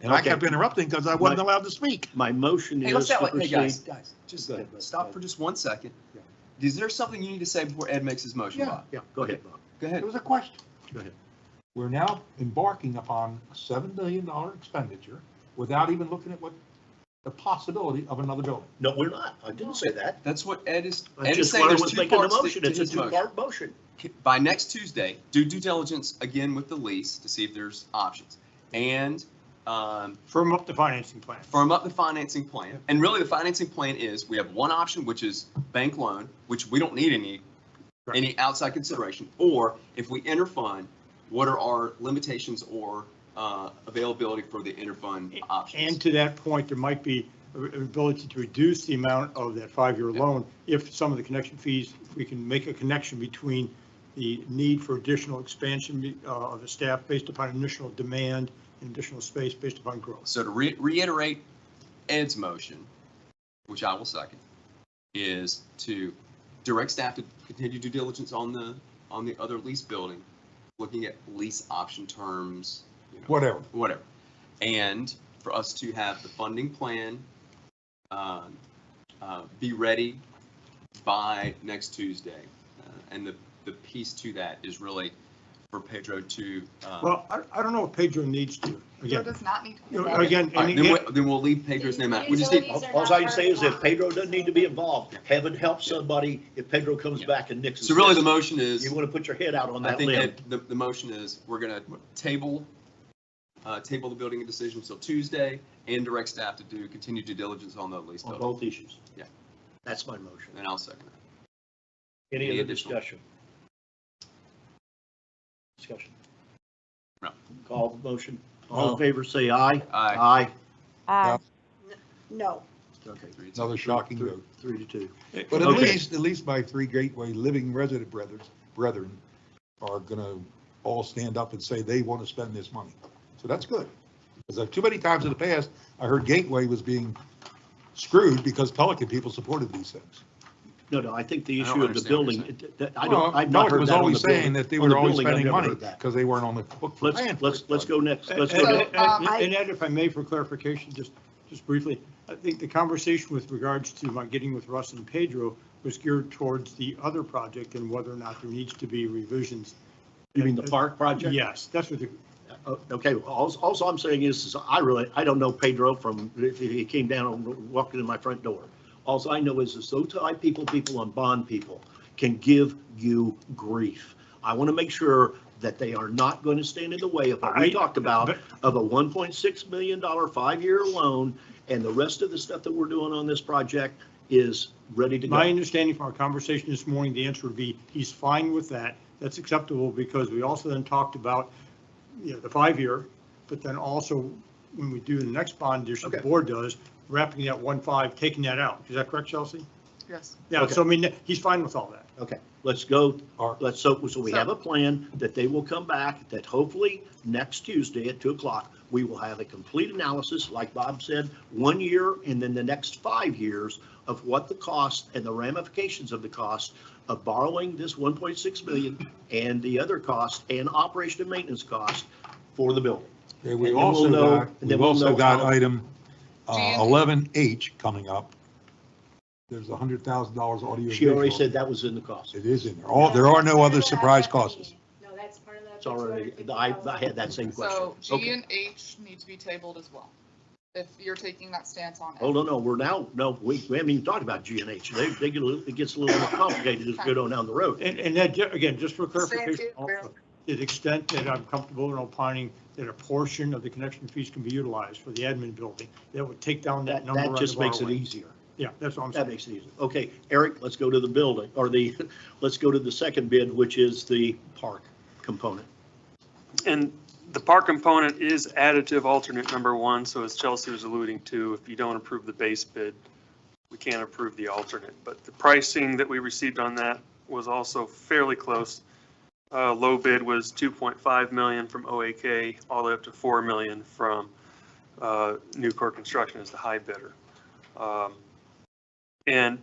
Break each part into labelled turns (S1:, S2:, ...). S1: And I
S2: Okay.
S1: kept interrupting because I wasn't
S2: Right.
S1: allowed to speak.
S2: My motion
S3: Hey,
S2: is
S3: let's
S2: to
S3: not let, hey, guys,
S2: proceed.
S3: guys, just
S1: Go ahead, Bob.
S3: stop for just one second.
S1: Yeah.
S3: Is there something you need to say before Ed makes his motion,
S1: Yeah,
S3: Bob?
S1: yeah.
S2: Go ahead, Bob.
S3: Go ahead.
S1: It was a question.
S2: Go ahead.
S1: We're now embarking upon a seven million dollar expenditure without even looking at what the possibility of another building.
S2: No, we're not. I didn't say that.
S3: That's what Ed is,
S2: I
S3: Ed is
S2: just
S3: saying
S2: wanted
S3: there's
S2: to
S3: two
S2: make a
S3: parts to-
S2: motion.
S3: to
S2: It's a
S3: his motion.
S2: two-part motion.
S3: By next Tuesday, do due diligence again with the lease to see if there's options. And, um,
S4: Firm up the financing plan.
S3: firm up the financing plan. And really, the financing plan is, we have one option, which is bank loan, which we don't need any,
S4: Correct.
S3: any outside consideration. Or if we interfund, what are our limitations or uh, availability for the interfund
S4: And
S3: options?
S4: to that point, there might be a- a ability to reduce the amount of that five-year
S3: Yeah.
S4: loan if some of the connection fees, if we can make a connection between the need for additional expansion uh, of the staff based upon initial demand and additional space based upon growth.
S3: So to re- reiterate Ed's motion, which I will second, is to direct staff to continue due diligence on the, on the other lease building, looking at lease option terms, you know,
S1: Whatever.
S3: whatever. And for us to have the funding plan um, uh, be ready by next Tuesday. Uh, And the, the piece to that is really for Pedro to, uh, all
S4: Well, I, I don't know if Pedro needs to,
S5: Joe
S4: again,
S5: does not need to. be
S4: you know,
S5: involved.
S4: again,
S3: right, then
S4: and again,
S3: we'll, then we'll leave Pedro's name out. We just need,
S2: All all I can say is if Pedro doesn't need to be involved, heaven help
S3: Yeah.
S2: somebody if Pedro comes
S3: Yeah.
S2: back and nixes.
S3: so really the
S2: this.
S3: motion is,
S2: You want to put your head out on
S3: I
S2: that
S3: think
S2: limb.
S3: that the, the motion is, we're gonna table, uh, table the building and decision until Tuesday and direct staff to do, continue due diligence on the lease
S2: on
S3: building.
S2: both issues.
S3: Yeah.
S2: That's my motion.
S3: And I'll second it.
S2: Any
S3: Any
S2: other
S3: additional?
S2: discussion? Discussion?
S3: No.
S2: Call the motion. All
S6: All
S2: in
S6: in
S2: favor, say aye.
S3: Aye.
S2: Aye.
S7: Uh,
S8: No,
S2: Okay.
S3: Three to two.
S9: Another shocking
S2: Three-
S9: vote.
S2: Three to two.
S9: But at
S2: Okay.
S9: least, at least my three Gateway living resident brethren, brethren are gonna all stand up and say they want to spend this money. So that's good. Because too many times in the past, I heard Gateway was being screwed because Pelican people supported these things.
S2: No, no, I think the
S3: I don't
S2: issue of the
S3: understand what you're
S2: building, it- that- I
S9: Well,
S2: don't, I've not
S9: Pelican
S2: heard
S9: was
S2: that on the
S9: always saying
S2: building.
S9: that they
S2: On the
S9: were always
S2: building, I've
S9: spending
S2: never
S9: money
S2: heard that.
S9: because they weren't on the book for plan.
S2: Let's, let's, let's go next. Let's go
S4: And-
S2: next.
S4: and- and-
S8: Um, I-
S4: And Ed, if I may, for clarification, just, just briefly, I think the conversation with regards to my getting with Russ and Pedro was geared towards the other project and whether or not there needs to be revisions.
S2: You mean the park project?
S4: Yes, that's what the,
S2: Uh, Okay, all, all I'm saying is, is I really, I don't know Pedro from, if he came down and walked into my front door. Alls I know is, is those high people, people on bond people can give you grief. I want to make sure that they are not going to stand in the way of what
S4: I-
S2: we talked about,
S4: but-
S2: of a $1.6 million five-year loan, and the rest of the stuff that we're doing on this project is ready to
S4: my
S2: go.
S4: understanding from our conversation this morning, the answer would be, he's fine with that. That's acceptable because we also then talked about, you know, the five-year, but then also when we do the next bond issue, the
S2: Okay.
S4: board does, wrapping that one-five, taking that out. Is that correct, Chelsea?
S5: Yes.
S4: Yeah, so I mean, he's fine with all that.
S2: Okay, let's go
S9: Or-
S2: Let's, so, so we have a plan that they will come back, that hopefully next Tuesday at two o'clock, we will have a complete analysis, like Bob said, one year and then the next five years of what the cost and the ramifications of the cost of borrowing this one point six million and the other cost and operation and maintenance cost for the building.
S9: Okay,
S2: And then
S9: We've
S2: we'll
S9: also
S2: know-
S9: got,
S2: and then
S9: we've
S2: we'll
S9: also
S2: know
S9: got
S2: how-
S9: item uh,
S5: Jan.
S9: eleven H coming up. There's a hundred thousand dollars audio.
S2: She already
S9: visual.
S2: said that was in the cost.
S9: It is in there. All, there are no other surprise costs.
S10: No, that's part of the.
S2: It's already, I, I had that same question.
S5: So G
S2: Okay.
S5: and H need to be tabled as well, if you're taking that stance on it.
S2: Oh, no, no, we're now, no, we, we haven't even talked about G and H. They, they get, a little- it gets a little more complicated as we go down the road.
S4: And, and that, ju- again, just for clarification,
S5: Stanfield
S4: also,
S5: Road.
S4: to the extent that I'm comfortable in opining that a portion of the connection fees can be utilized for the admin building, that would take down
S2: That,
S4: that number. on
S2: that
S4: the
S2: just makes it
S4: borrowing.
S2: easier.
S4: Yeah, that's what I'm
S2: That
S4: saying.
S2: makes it easier. Okay, Eric, let's go to the building, or the, let's go to the second bid, which is the park component.
S11: And the park component is additive alternate number one, so as Chelsea was alluding to, if you don't approve the base bid, we can't approve the alternate, but the pricing that we received on that was also fairly close. Uh, low bid was two point five million from OAK, all the way up to four million from, uh, Newcore Construction is the high bidder. Um, And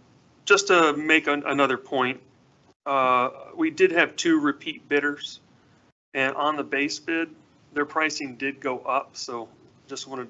S11: just to make an- another point, uh, we did have two repeat bidders. And on the base bid, their pricing did go up, so just wanted to